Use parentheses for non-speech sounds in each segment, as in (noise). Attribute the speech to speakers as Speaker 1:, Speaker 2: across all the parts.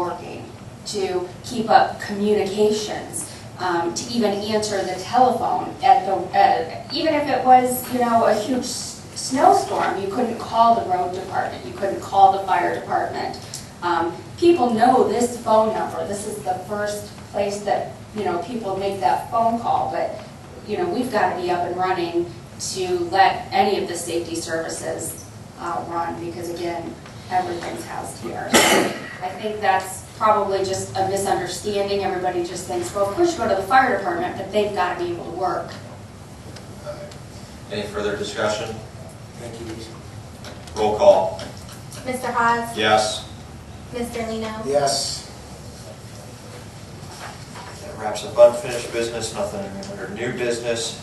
Speaker 1: working to keep up communications, um, to even answer the telephone at the, uh, even if it was, you know, a huge s- snowstorm, you couldn't call the road department, you couldn't call the fire department. Um, People know this phone number, this is the first place that, you know, people make that phone call, but, you know, we've got to be up and running to let any of the safety services uh, run, because again, everything's housed here. So I think that's probably just a misunderstanding, everybody just thinks, well, of course you go to the fire department, but they've got to be able to work.
Speaker 2: Any further discussion?
Speaker 3: Thank you, Lisa.
Speaker 2: Roll call.
Speaker 4: Mr. Haas,
Speaker 2: Yes.
Speaker 4: Mr. Lino.
Speaker 3: Yes,
Speaker 2: That wraps up unfinished business, nothing under new business.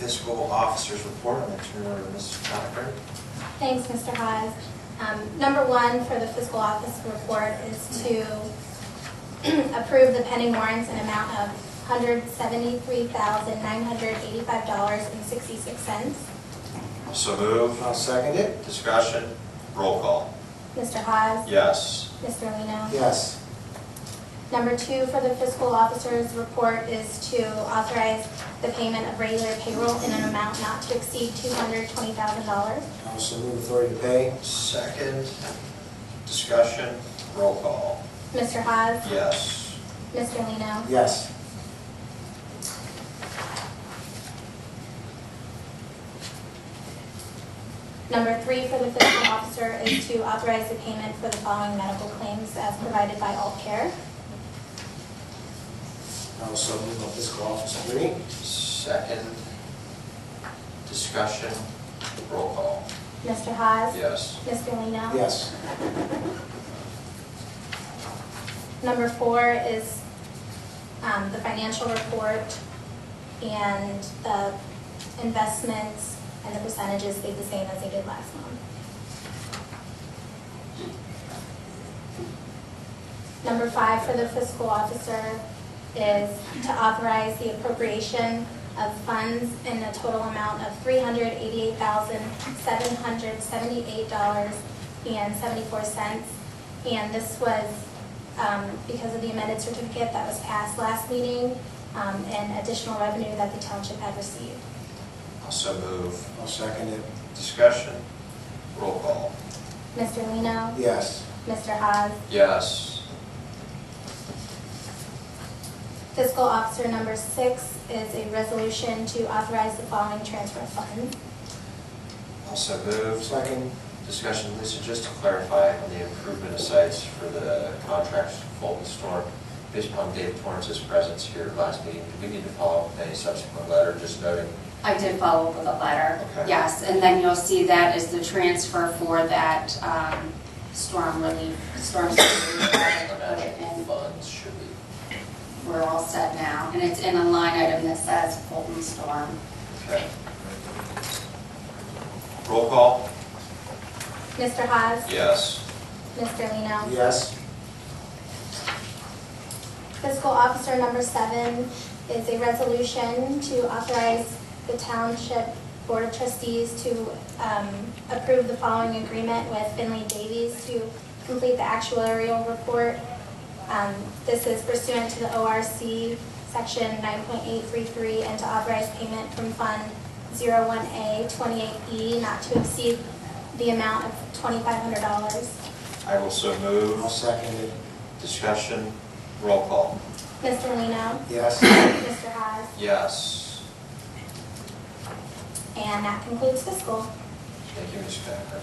Speaker 2: Fiscal officer's report, I'm going to turn it over to Mrs. Cochran.
Speaker 4: Thanks, Mr. Haas. Um, Number one for the fiscal office report is to (clears throat) approve the pending warrants in amount of $173,985.66.
Speaker 2: So move.
Speaker 3: I'll second it.
Speaker 2: Discussion. Roll call.
Speaker 4: Mr. Haas,
Speaker 2: Yes.
Speaker 4: Mr. Lino.
Speaker 3: Yes,
Speaker 4: Number two for the fiscal officer's report is to authorize the payment of regular payroll in an amount not to exceed $220,000.
Speaker 3: also move authority to pay.
Speaker 2: Second. Discussion. Roll call.
Speaker 4: Mr. Haas,
Speaker 2: Yes.
Speaker 4: Mr. Lino.
Speaker 3: Yes,
Speaker 4: Number three for the fiscal officer is to authorize the payment for the following medical claims as provided by Alt Care.
Speaker 3: also move on fiscal officer three.
Speaker 2: Second. Discussion. Roll call.
Speaker 4: Mr. Haas.
Speaker 2: Yes.
Speaker 4: Mr. Lino.
Speaker 3: Yes,
Speaker 4: Number four is um, the financial report and the investments and the percentages stayed the same as they did last month. Number five for the fiscal officer is to authorize the appropriation of funds in a total amount of three hundred eighty-eight thousand, seven hundred seventy-eight dollars and seventy-four cents. And this was um, because of the amended certificate that was passed last meeting um, and additional revenue that the township had received.
Speaker 2: So move.
Speaker 3: I'll second it.
Speaker 2: Discussion. Roll call.
Speaker 4: Mr. Lino,
Speaker 3: Yes,
Speaker 4: Mr. Haas,
Speaker 2: Yes.
Speaker 4: fiscal officer number six is a resolution to authorize the following transfer of funds.
Speaker 2: Also moved.
Speaker 3: second.
Speaker 2: Discussion, Lisa, just to clarify on the improvement of sites for the contracts for Fulton Storm, based upon Dave Torrance's presence here last meeting, do we need to follow up with any subsequent letter, just noting?
Speaker 1: I did follow up with a letter,
Speaker 2: Okay.
Speaker 1: yes, and then you'll see that is the transfer for that um, storm relief, storm. surge.
Speaker 2: Financial
Speaker 1: And
Speaker 2: funds should be,
Speaker 1: We're all set now, and it's in a line item that says Fulton Storm.
Speaker 2: okay. Roll call?
Speaker 4: Mr. Haas,
Speaker 2: Yes.
Speaker 4: Mr. Lino.
Speaker 3: Yes,
Speaker 4: Fiscal officer number seven is a resolution to authorize the township board of trustees to um, approve the following agreement with Finley Davies to complete the actuarial report. Um, This is pursuant to the ORC section 9.833 and to authorize payment from Fund 01A 28E E not to exceed the amount of $2,500.
Speaker 2: I will so
Speaker 3: I'll
Speaker 2: move.
Speaker 3: second it.
Speaker 2: Discussion, roll call?
Speaker 4: Mr. Lino?
Speaker 3: Yes,
Speaker 4: Mr. Haas?
Speaker 2: Yes.
Speaker 4: And that concludes fiscal.
Speaker 2: Thank you, Ms. Packard.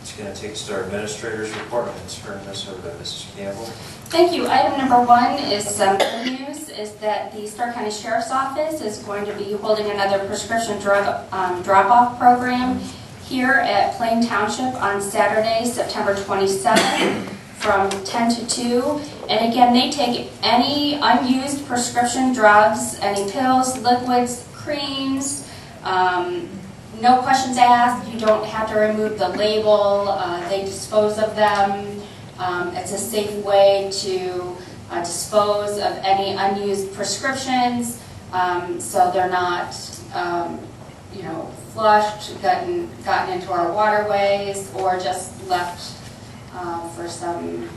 Speaker 2: It's gonna take us to our administrator's report, I'm gonna turn this over to Mrs. Campbell.
Speaker 1: Thank you. Item number one is some good news, is that the Stark County Sheriff's Office is going to be holding another prescription drug um, drop-off program here at Plain Township on Saturday, September 27th, from 10 to 2. And again, they take any unused prescription drugs, any pills, liquids, creams, um, no questions asked, you don't have to remove the label, uh, they dispose of them. Um, It's a safe way to uh, dispose of any unused prescriptions, um, so they're not, um, you know, flushed, gotten, gotten into our waterways, or just left uh, for some